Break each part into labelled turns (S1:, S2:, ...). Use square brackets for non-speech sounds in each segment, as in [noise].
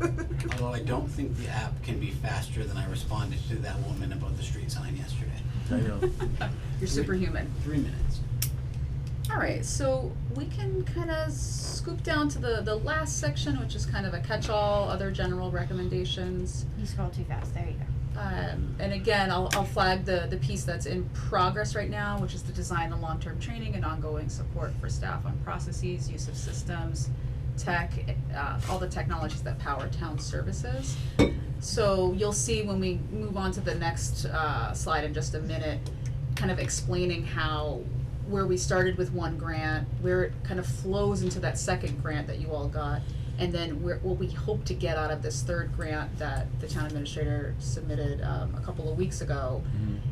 S1: Although I don't think the app can be faster than I responded to that woman about the street sign yesterday.
S2: I know.
S3: [laughs] You're superhuman.
S1: Three minutes.
S3: All right, so we can kind of scoop down to the, the last section, which is kind of a catch-all, other general recommendations.
S4: You scroll too fast, there you go.
S3: Um, and again, I'll, I'll flag the, the piece that's in progress right now, which is the design and long-term training and ongoing support for staff on processes, use of systems, tech, uh, all the technologies that power town services. So you'll see when we move on to the next, uh, slide in just a minute, kind of explaining how, where we started with one grant, where it kind of flows into that second grant that you all got, and then where, what we hope to get out of this third grant that the town administrator submitted, um, a couple of weeks ago,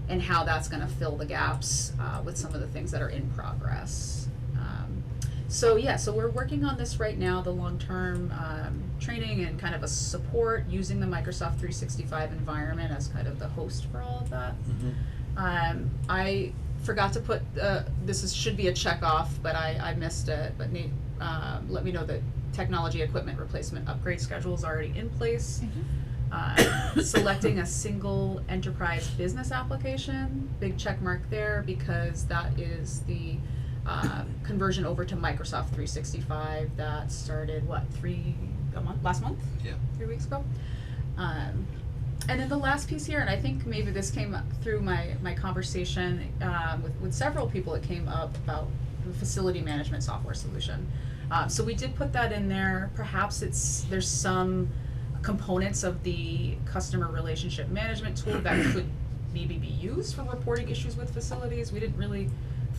S3: and how that's gonna fill the gaps, uh, with some of the things that are in progress. Um, so yeah, so we're working on this right now, the long-term, um, training and kind of a support, using the Microsoft three sixty-five environment as kind of the host for all of that. Um, I forgot to put, uh, this is, should be a check off, but I, I missed it, but Nate, um, let me know that technology equipment replacement upgrade schedule is already in place. Uh, [coughs] selecting a single enterprise business application, big check mark there, because that is the, uh, conversion over to Microsoft three sixty-five that started, what, three, a month, last month?
S1: Yeah.
S3: three weeks ago. Um, and then the last piece here, and I think maybe this came up through my, my conversation um, with, with several people, it came up about the facility management software solution. Uh, so we did put that in there. Perhaps it's there's some components of the customer relationship management tool that could maybe be used for reporting issues with facilities. We didn't really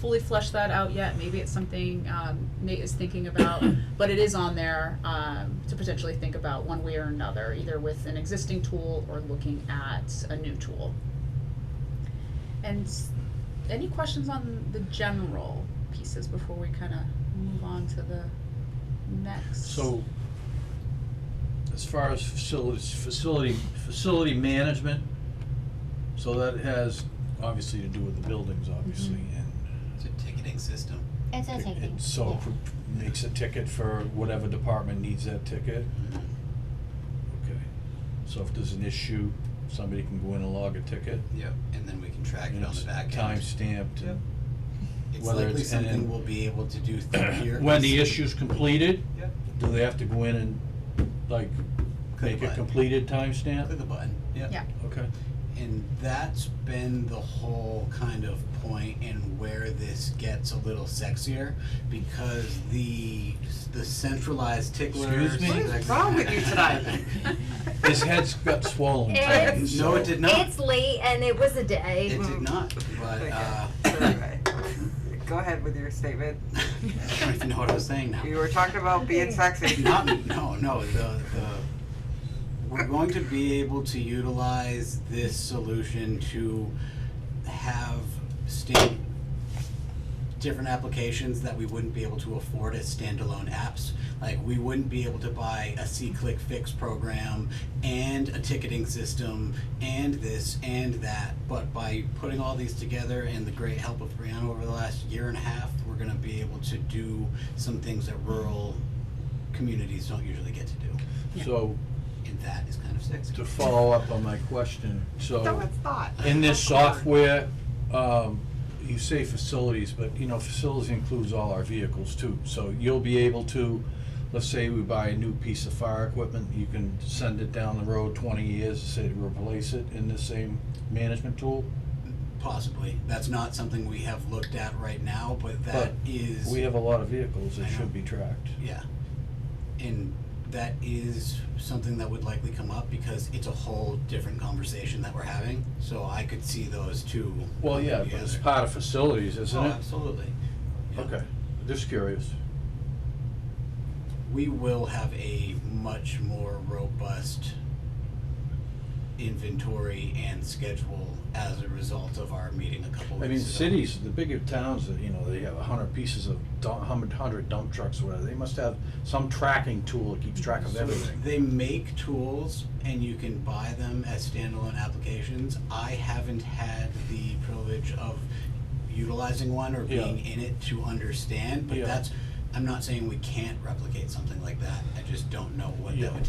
S3: fully flesh that out yet. Maybe it's something um, Nate is thinking about, but it is on there um, to potentially think about one way or another, either with an existing tool or looking at a new tool. And s- any questions on the general pieces before we kind of move on to the next?
S2: So, as far as facilities, facility, facility management, so that has obviously to do with the buildings, obviously,
S1: Mm-hmm.
S2: and
S1: It's a ticketing system.
S4: It's a taking.
S2: it so
S4: yeah.
S2: pr- makes a ticket for whatever department needs that ticket.
S1: Mm-hmm.
S2: Okay. So if there's an issue, somebody can go in and log a ticket.
S1: Yep. And then we can track it
S2: and
S1: on the
S2: it's
S1: back end.
S2: Time stamped, and
S1: It's
S2: whether
S1: likely
S2: it's in-
S1: something we'll be able to do
S2: [coughs] [clears throat]
S1: through here.
S2: when the issue's completed,
S1: Yep.
S2: do they have to go in and, like,
S1: Click
S2: make
S1: the
S2: a
S1: button.
S2: completed timestamp?
S1: Click the button.
S3: Yeah.
S2: Okay.
S1: And that's been the whole kind of point and where this gets a little sexier because the the centralized ticklers.
S2: Excuse me? What
S3: is
S1: [laughs]
S3: wrong with you tonight?
S2: His head's got swollen.
S5: It's-
S2: tight,
S1: no,
S2: so-
S1: it did not.
S5: It's late and it was a day.
S1: It did not. But
S6: Okay.
S1: uh, [laughs]
S6: So anyway, Go ahead with your statement.
S1: I don't even know what I was saying now.
S6: You were talking about being sexy.
S1: Not no no the the we're going to be able to utilize this solution to have stand different applications that we wouldn't be able to afford as standalone apps. Like we wouldn't be able to buy a C click fix program and a ticketing system and this and that. But by putting all these together and the great help of Brianna over the last year and a half, we're gonna be able to do some things that rural communities don't usually get to do.
S2: So,
S1: And that is kind of sexy.
S2: to follow up on my question,
S6: No,
S2: so,
S6: it's not.
S2: in this
S6: That's awkward.
S2: software, um, you say facilities, but, you know, facilities includes all our vehicles too. So you'll be able to, let's say we buy a new piece of fire equipment, you can send it down the road twenty years, say to replace it in the same management tool?
S1: Possibly. That's not something we have looked at right now, but that
S2: But
S1: is,
S2: We have a lot of vehicles that
S1: I know.
S2: should be tracked.
S1: yeah. And that is something that would likely come up because it's a whole different conversation that we're having. So I could see those two.
S2: Well,
S1: coming
S2: yeah, but it's
S1: together.
S2: part of facilities, isn't
S1: Oh,
S2: it?
S1: absolutely. Oh, Yeah.
S2: Okay, just curious.
S1: We will have a much more robust inventory and schedule as a result of our meeting a couple weeks ago.
S2: I mean, cities, the bigger towns, that you know, they have a hundred pieces of, hundred, hundred dump trucks or whatever, they must have some tracking tool that keeps track of
S1: So
S2: everything.
S1: They make tools and you can buy them as standalone applications. I haven't had the privilege of utilizing one or
S2: Yeah.
S1: being in it to understand, but
S2: Yeah.
S1: that's, I'm not saying we can't replicate something like that. I just don't know what
S2: Yeah.
S1: that would